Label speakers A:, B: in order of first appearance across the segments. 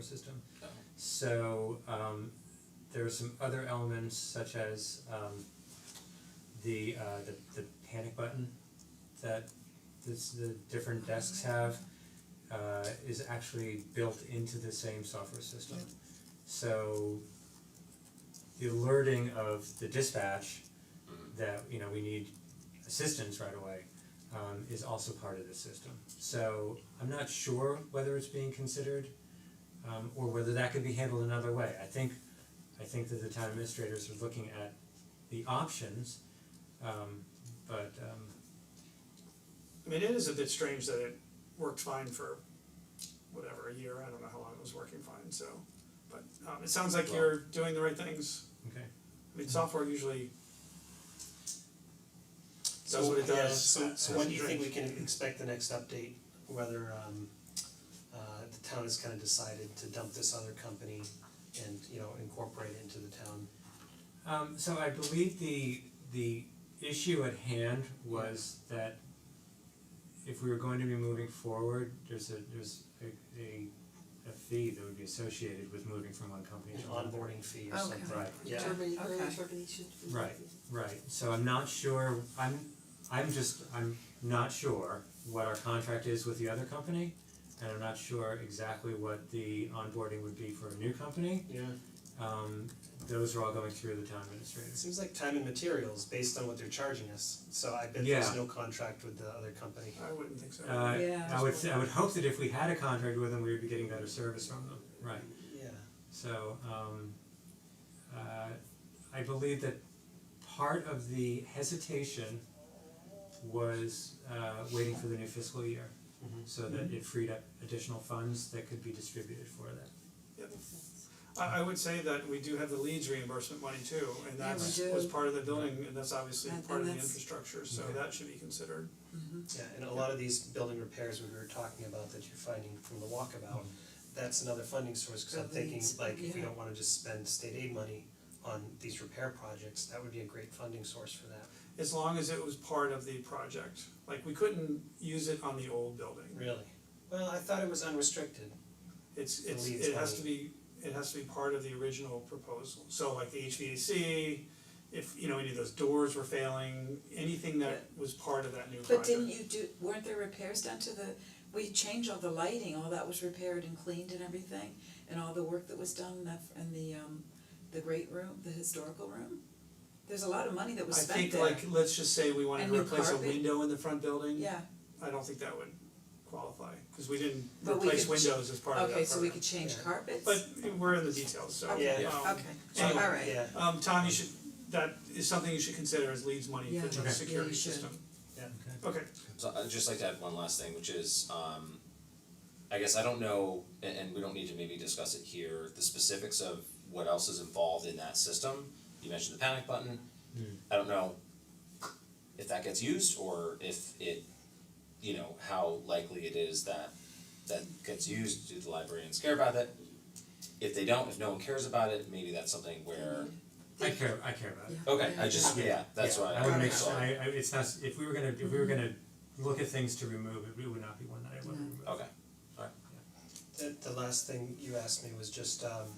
A: system.
B: Oh.
A: So um there are some other elements such as um the uh the the panic button that this the different desks have uh is actually built into the same software system. So the alerting of the dispatch
B: Mhm.
A: that, you know, we need assistance right away um is also part of the system. So I'm not sure whether it's being considered um or whether that could be handled another way. I think I think that the town administrators are looking at the options um but um
C: I mean, it is a bit strange that it worked fine for whatever, a year, I don't know how long it was working fine, so. But um it sounds like you're doing the right things,
A: okay.
C: I
D: Mm-hmm.
C: mean, software usually does what it
D: yeah,
C: does.
D: so so when do you think we
C: Strange.
D: can expect the next update, whether um uh the town has kind of decided to dump this other company and, you know, incorporate it into the town?
A: Um so I believe the the issue at hand was that if we were going to be moving forward, there's a there's a a a fee that would be associated with moving from one company
D: An
A: to another.
D: onboarding fee or
E: Okay.
D: something,
A: Right.
D: yeah.
E: Termina- early
B: Okay.
E: termination. fee.
A: Right. Right, so I'm not sure, I'm I'm just, I'm not sure what our contract is with the other company. And I'm not sure exactly what the onboarding would be for a new company,
D: Yeah,
A: um those are all going through the town administrator.
D: it seems like time and materials based on what they're charging us, so I bet
A: Yeah.
D: there's no contract with the other company.
C: I wouldn't think so.
A: Uh
E: Yeah.
A: I would I would hope that if we had a contract with them, we would be getting better service from them, right?
D: Yeah.
A: So um uh I believe that part of the hesitation was uh waiting for the new fiscal year.
B: Mm-hmm.
D: Mhm.
A: So that it freed up additional funds that could be distributed for that.
C: I I would say that we do have the leads reimbursement money too, and
E: Yeah, we
C: that's
E: do.
C: was part of the building, and that's obviously
E: And-
C: part of
E: and
C: the
E: that's-
C: infrastructure, so
A: Okay.
C: that should be considered.
D: Yeah, and a lot of these building repairs we were talking about that you're finding from the walkabout, that's another funding source, cause I'm thinking
E: Buildings,
D: like if we
E: yeah.
D: don't wanna just spend state aid money on these repair projects, that would be a great funding source for that.
C: As long as it was part of the project, like we couldn't use it on the old building.
D: Really? Well, I thought it was unrestricted.
C: It's
D: The
C: it's
D: leads
C: it has
D: money.
C: to be, it has to be part of the original proposal, so like the HVAC, if you know, any of those doors were failing, anything that was part of that new project.
E: But didn't you do, weren't there repairs done to the, we changed all the lighting, all that was repaired and cleaned and everything? And all the work that was done in that, in the um, the great room, the historical room? There's a lot of money that was
C: I
E: spent
C: think
E: there,
C: like, let's just say we wanted
E: And
C: to
E: new
C: replace a
E: carpet.
C: window in the front building.
E: yeah,
C: I don't think that would qualify, cause we didn't
E: But we
C: replace
E: could ch-
C: windows as part of that
E: okay, so we
C: program.
E: could change
D: Yeah.
E: carpets?
C: But we're in the details, so um
D: Okay,
E: Okay,
D: So,
C: anyway.
E: alright.
D: Yeah,
C: um Tom, you should, that is something you should consider as leads money
E: Yeah.
C: for
E: Okay.
C: the
E: Yeah,
C: security
E: you should.
C: system.
D: Yeah.
C: Okay,
B: So I'd just like to add one last thing, which is um I guess I don't know a- and we don't need to maybe discuss it here, the specifics of what else is involved in that system. You mentioned the panic button.
A: Hmm.
B: I don't know if that gets used or if it you know, how likely it is that that gets used, do the librarians care about it? If they don't, if no one cares about it, maybe that's something where
A: I care I care about it.
E: Mm-hmm.
B: Okay, I just
A: Yeah.
B: yeah, that's
A: Yeah,
B: why
A: I would make
E: Got
A: sure, I I it's not, s- if we were gonna, if we were gonna look at things to remove, it would not be one that I would
E: No.
A: remove.
B: Okay.
D: the the last thing you asked me was just um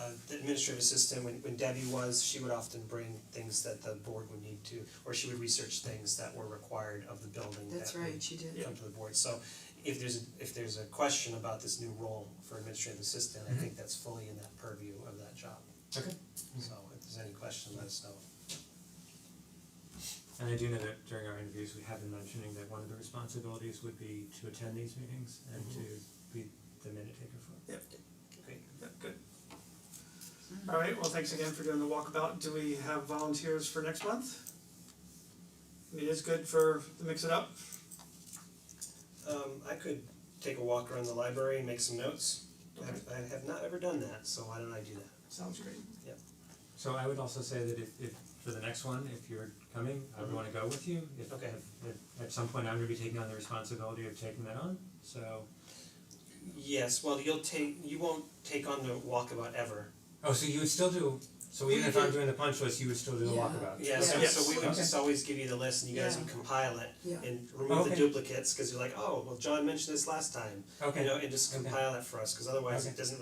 D: uh the administrative assistant, when when Debbie was, she would often bring things that the board would need to, or she would research things that were required of the building that
E: That's
D: would
E: right, she did.
D: come to the board, so if there's if there's a question about this new role for administrative assistant, I think that's fully in that purview of that job.
A: Okay.
D: So if there's any question, let us know.
A: And I do know that during our interviews, we have been mentioning that one of the responsibilities would be to attend these meetings and
B: Mm-hmm.
A: to be the minute taker for. it.
C: yeah, good. Alright, well, thanks again for doing the walkabout, do we have volunteers for next month? I mean, it's good for, to mix it up,
D: Um I could take a walk around the library and make some notes. I have I have not ever done that, so why don't I do that?
C: sounds great.
A: So I would also say that if if for the next one, if you're coming, I would wanna go with you. If
D: Mm-hmm. Okay.
A: if- if at some point I'm gonna be taking on the responsibility of taking that on, so.
D: Yes, well, you'll take, you won't take on the walkabout ever.
A: Oh, so you would still do, so even
E: We
A: if I'm
E: do-
A: doing the punch list, you would still do the
E: Yeah.
A: walkabout?
D: Yeah, so
C: Yeah.
D: so we would
A: Yes.
D: just always give you the list and you guys
E: Yeah.
D: would compile it
E: Yeah.
D: and remove the
A: Okay.
D: duplicates, cause you're like, oh, well, John mentioned this last time.
A: Okay.
D: You know, and just
A: Okay.
D: compile it for us, cause otherwise
A: Okay.
D: it doesn't